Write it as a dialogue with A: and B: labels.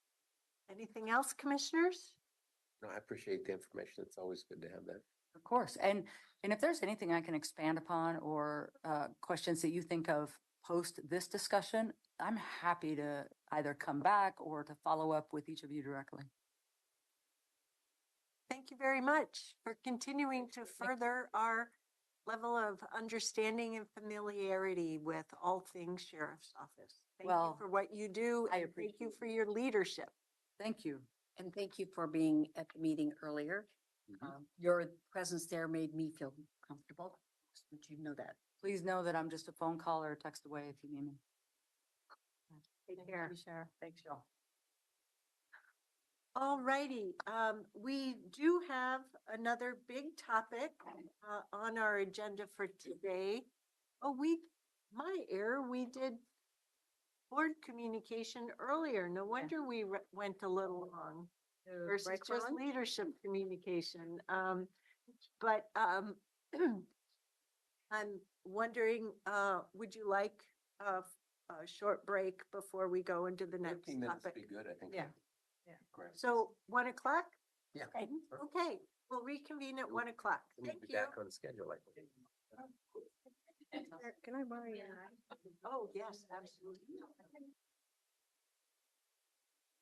A: Anything else, commissioners?
B: No, I appreciate the information. It's always good to have that.
C: Of course. And, and if there's anything I can expand upon or uh, questions that you think of post this discussion, I'm happy to either come back or to follow up with each of you directly.
A: Thank you very much for continuing to further our level of understanding and familiarity with all things sheriff's office. Thank you
C: Well,
A: for what you do.
C: I
A: and Thank you
C: appreciate
A: for your leadership.
C: Thank you.
D: And thank you for being at the meeting earlier.
C: Mm-hmm.
A: Uh,
D: Um, Your presence there made me feel comfortable. Just want you to know that.
C: Please know that I'm just a phone call or a text away if you need me.
A: Take care.
C: Sheriff. Thanks, y'all.
A: All righty, um, we do have another big topic, uh, on our agenda for today. Oh, we, my error, we did board communication earlier. No wonder we re- went a little long. versus just leadership communication. Um, but, um, I'm wondering, uh, would you like a, a short break before we go into the next
B: Fifteen minutes would
A: topic?
B: be good, I think.
A: Yeah.
C: Yeah.
B: Great.
A: So one o'clock?
B: Yeah.
A: Okay, Okay, we'll reconvene at one o'clock.
B: We'll
A: Thank
B: be
A: you.
B: back on schedule, I think.
A: Oh, yes, absolutely.